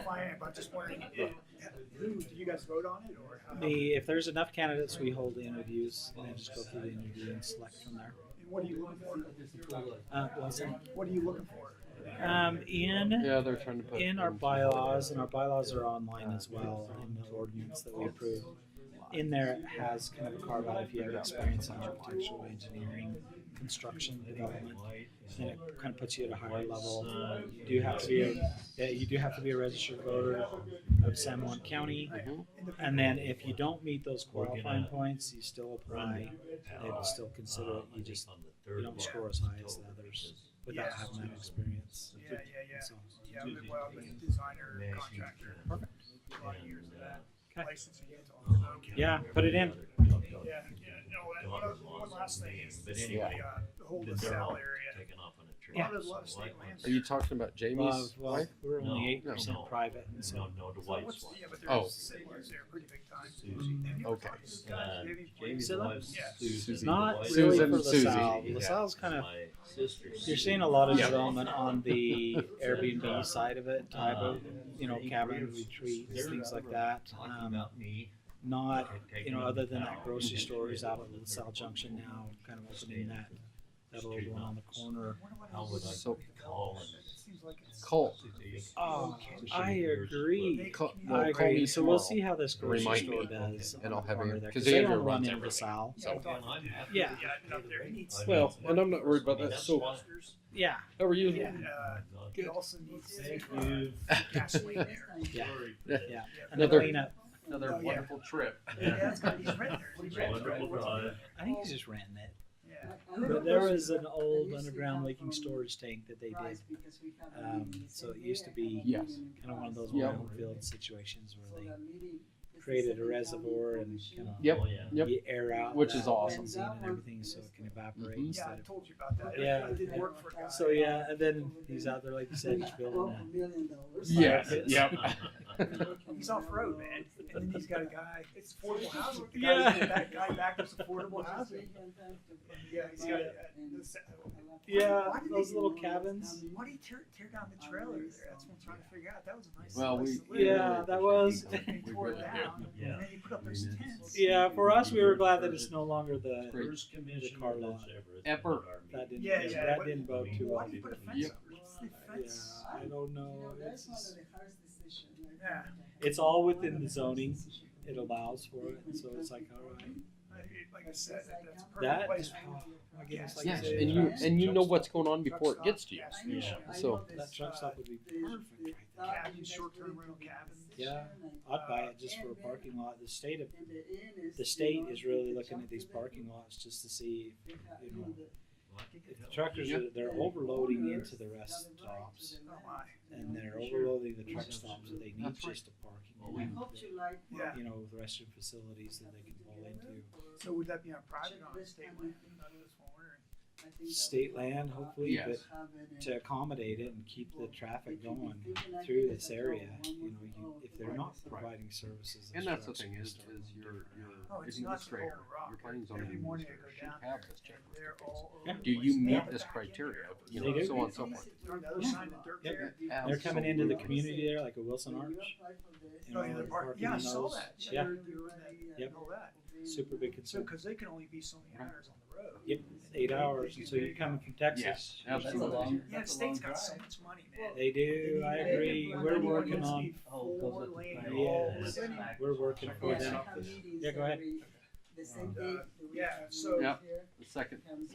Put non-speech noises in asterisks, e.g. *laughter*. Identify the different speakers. Speaker 1: why I am. I'm just wondering, who, do you guys vote on it or how?
Speaker 2: The if there's enough candidates, we hold the interviews and then just go through the interview and select from there.
Speaker 1: And what are you looking for?
Speaker 2: Uh, what's that?
Speaker 1: What are you looking for?
Speaker 2: um, in
Speaker 3: Yeah, they're trying to put
Speaker 2: in our bylaws, and our bylaws are online as well, in the ordinance that we approve. In there it has kind of a carve out if you have experience in architectural engineering, construction, development, then it kind of puts you at a higher level. You do have to be a, yeah, you do have to be a registered voter of San Juan County. And then if you don't meet those qualifying points, you still apply. They would still consider it. You just you don't score as high as the others without
Speaker 1: Yeah.
Speaker 2: having that experience.
Speaker 1: Yeah, yeah, yeah.
Speaker 2: So,
Speaker 1: Yeah, I've been, well, I've been a designer, contractor, a lot of years of that.
Speaker 2: Okay.
Speaker 1: License in Utah. so-
Speaker 2: yeah, put it in.
Speaker 1: Yeah, yeah, no, and one, other- one last thing is the,
Speaker 4: Yeah.
Speaker 1: uh, the whole LaSalle area. A lot of, lot of state lands.
Speaker 3: Are you talking about
Speaker 2: Well,
Speaker 3: Jamie's
Speaker 2: well,
Speaker 3: wife?
Speaker 2: we're only
Speaker 4: No,
Speaker 2: eight percent
Speaker 4: no.
Speaker 2: private, and so
Speaker 4: No, no,
Speaker 1: So
Speaker 4: Dwight's
Speaker 1: what's,
Speaker 4: one.
Speaker 1: yeah, but
Speaker 3: Oh.
Speaker 1: there's settlers there pretty big time. Have you ever
Speaker 3: Okay.
Speaker 1: talked to
Speaker 4: Uh,
Speaker 1: guys? Maybe
Speaker 4: Jamie's
Speaker 2: Scylla?
Speaker 4: wife's
Speaker 1: Yeah.
Speaker 4: Susan.
Speaker 2: it's not
Speaker 4: Dwight's
Speaker 2: really
Speaker 3: Susan
Speaker 2: for
Speaker 3: and Susie.
Speaker 2: LaSalle.
Speaker 4: Yeah.
Speaker 2: LaSalle's kind of
Speaker 4: My sister.
Speaker 2: you're seeing a lot of
Speaker 3: Yeah.
Speaker 2: development on
Speaker 4: *laughs*
Speaker 2: the Airbnb side of
Speaker 4: Uh,
Speaker 2: it, type of you know cabin retreats, things like that.
Speaker 4: Talking
Speaker 2: Um,
Speaker 4: about me.
Speaker 2: not
Speaker 4: and
Speaker 2: you
Speaker 4: taking
Speaker 2: know
Speaker 4: on
Speaker 2: other than
Speaker 4: the
Speaker 2: that
Speaker 4: town. *laughs*
Speaker 2: grocery
Speaker 4: Mhm.
Speaker 2: store is out at LaSalle Junction now, kind of opening that that old one on the corner.
Speaker 4: How would I
Speaker 3: So-
Speaker 4: call and
Speaker 1: It seems like it's.
Speaker 3: Colt.
Speaker 2: Oh,
Speaker 4: Susan
Speaker 2: I
Speaker 4: years,
Speaker 2: agree.
Speaker 3: Call, well,
Speaker 2: I
Speaker 3: call me
Speaker 2: agree. So
Speaker 3: tomorrow.
Speaker 2: we'll see how this grocery
Speaker 3: Remind
Speaker 2: store
Speaker 3: me.
Speaker 2: does.
Speaker 3: And I'll
Speaker 2: on the
Speaker 3: have
Speaker 2: corner
Speaker 3: Andrew-
Speaker 2: there,
Speaker 3: 'cause
Speaker 2: 'cause they
Speaker 3: Andrew
Speaker 2: don't run
Speaker 3: runs
Speaker 2: in
Speaker 3: everything.
Speaker 2: LaSalle.
Speaker 1: Yeah,
Speaker 4: but- And I'm happy.
Speaker 2: Yeah.
Speaker 1: Yeah, I've been up there.
Speaker 4: I
Speaker 3: Well,
Speaker 4: mean,
Speaker 3: and I'm not worried about
Speaker 4: I mean,
Speaker 3: that soap.
Speaker 4: monsters.
Speaker 2: Oh, Yeah,
Speaker 3: How are you?
Speaker 1: Yeah, uh,
Speaker 4: Not
Speaker 1: it also needs to,
Speaker 4: Thank
Speaker 1: uh,
Speaker 4: you.
Speaker 1: gasoline there.
Speaker 4: *laughs*
Speaker 2: yeah,
Speaker 4: Sorry.
Speaker 2: yeah. And
Speaker 3: Another-
Speaker 2: the cleanup.
Speaker 1: Another wonderful
Speaker 3: trip.
Speaker 1: Yeah, it's got these red there. These reds, right?
Speaker 4: Wonderful drive.
Speaker 2: I think he's just renting it.
Speaker 1: Yeah.
Speaker 2: But there was an old underground leaking storage tank that they did. Um, so it used to be
Speaker 3: Yes.
Speaker 2: kind of one of those
Speaker 3: Yeah.
Speaker 2: open field situations where they created a reservoir and
Speaker 1: *laughs*
Speaker 2: kind of
Speaker 3: Yep.
Speaker 4: Oh, yeah.
Speaker 3: Yep.
Speaker 2: you air out
Speaker 3: Which
Speaker 2: the
Speaker 3: is awesome.
Speaker 2: benzene and everything so it can evaporate
Speaker 3: Mhm.
Speaker 1: Yeah,
Speaker 2: instead
Speaker 1: I told you about that. I-
Speaker 2: Yeah.
Speaker 1: I did work for a guy.
Speaker 2: of. So yeah, and then he's out there like you said, just building that. *laughs*
Speaker 3: Yes.
Speaker 2: Yes.
Speaker 3: Yep.
Speaker 1: He's off road, man. And then he's *laughs* got a guy, it's affordable housing. The guy,
Speaker 2: Yeah.
Speaker 1: that guy back was affordable housing. Yeah, he's got, uh, the se-
Speaker 2: Yeah,
Speaker 1: Why did
Speaker 2: those
Speaker 1: they-
Speaker 2: little cabins.
Speaker 1: Why do you tear, tear down the trailer there? That's what I'm trying to figure out. That was a nice
Speaker 3: Well,
Speaker 1: place
Speaker 3: we
Speaker 1: to live.
Speaker 2: Yeah, that was.
Speaker 1: They
Speaker 3: We
Speaker 1: tore it
Speaker 2: *laughs*
Speaker 3: really
Speaker 1: down,
Speaker 4: do. Yeah.
Speaker 1: and then you put up those tents.
Speaker 2: Yeah, for us, we were glad that it's no longer the.
Speaker 3: Great.
Speaker 4: First commission
Speaker 2: car
Speaker 4: was
Speaker 2: lot.
Speaker 4: ever.
Speaker 3: Ever.
Speaker 2: That didn't.
Speaker 1: Yeah, yeah,
Speaker 2: that
Speaker 1: what-
Speaker 2: didn't bode too
Speaker 1: Why
Speaker 2: well.
Speaker 1: do you put a fence
Speaker 3: Yep.
Speaker 1: up? What's the
Speaker 2: Yeah,
Speaker 1: fence?
Speaker 2: I don't know. It's,
Speaker 1: Yeah.
Speaker 2: it's all within the zoning. It allows for it, and so it's like, all right.
Speaker 1: I- Like I said, that- that's a perfect
Speaker 2: That-
Speaker 1: place. for-
Speaker 2: I guess like uh,
Speaker 3: Yes,
Speaker 2: the-
Speaker 3: and you and you know what's going on before it gets to you. So-
Speaker 2: That truck stop would be perfect. right there.
Speaker 1: Cabin, short-term rental cabins.
Speaker 2: Yeah, I'd buy it just for a parking lot. The state of the state is really looking at these parking lots just to see if, you know if the truckers are they're overloading into the rest stops
Speaker 1: Oh my.
Speaker 2: and they're overloading the truck stops that they need
Speaker 3: That's right.
Speaker 2: just a
Speaker 4: Well,
Speaker 2: parking
Speaker 4: we-
Speaker 2: lot.
Speaker 5: you like
Speaker 1: Yeah.
Speaker 2: You know, with restroom facilities that they can pull into.
Speaker 1: So would that be on private or on state land? That's what I'm wondering.
Speaker 2: State land, hopefully,
Speaker 3: Yes.
Speaker 2: but to accommodate it and keep the traffic going through this area, you know, you, if they're not providing services.
Speaker 3: And
Speaker 2: those
Speaker 3: that's the
Speaker 2: trucks
Speaker 3: thing
Speaker 2: are
Speaker 3: is,
Speaker 2: still gonna
Speaker 3: is
Speaker 2: be
Speaker 3: your
Speaker 2: around.
Speaker 1: Oh,
Speaker 3: your
Speaker 1: it's not the
Speaker 3: administrator,
Speaker 1: whole rock.
Speaker 3: your planning zoning
Speaker 1: Every morning I
Speaker 3: administrator
Speaker 1: go
Speaker 3: should
Speaker 1: down
Speaker 3: have
Speaker 1: there, and
Speaker 3: this checklist.
Speaker 1: they're
Speaker 3: of things.
Speaker 1: all
Speaker 2: Yeah.
Speaker 1: over the
Speaker 3: Do you
Speaker 1: place. They have
Speaker 3: meet
Speaker 1: the
Speaker 3: this
Speaker 1: back end
Speaker 3: criteria?
Speaker 1: there.
Speaker 3: You
Speaker 2: They
Speaker 3: know,
Speaker 2: do.
Speaker 3: so on and so forth.
Speaker 1: They're on the other side of the dirt
Speaker 2: Yep.
Speaker 1: there.
Speaker 2: They're coming into the
Speaker 3: Absolutely.
Speaker 2: community there, like a Wilson Arch, you
Speaker 1: Oh,
Speaker 2: know,
Speaker 1: yeah, the
Speaker 2: they're
Speaker 1: park,
Speaker 2: parking
Speaker 1: yeah, I
Speaker 2: in
Speaker 1: saw
Speaker 2: those.
Speaker 1: that.
Speaker 2: Yeah,
Speaker 1: they're- they're in that-
Speaker 2: Yep.
Speaker 1: and All that.
Speaker 2: super big
Speaker 1: So,
Speaker 2: concern.
Speaker 1: cause they can only be so many
Speaker 3: Right.
Speaker 1: hours on the road.
Speaker 2: Yep, eight hours, and so you're coming from Texas.
Speaker 3: Yes, absolutely.
Speaker 1: Yeah, the state's got so much money, man.
Speaker 2: They do, I agree, we're working on,
Speaker 3: Oh,
Speaker 1: Four lane,
Speaker 2: Yeah.
Speaker 1: all
Speaker 2: Yes.
Speaker 1: city.
Speaker 2: we're working for
Speaker 3: Yeah.
Speaker 2: them.
Speaker 5: Yeah, go ahead.
Speaker 1: uh, Yeah, so.
Speaker 3: Yep. The second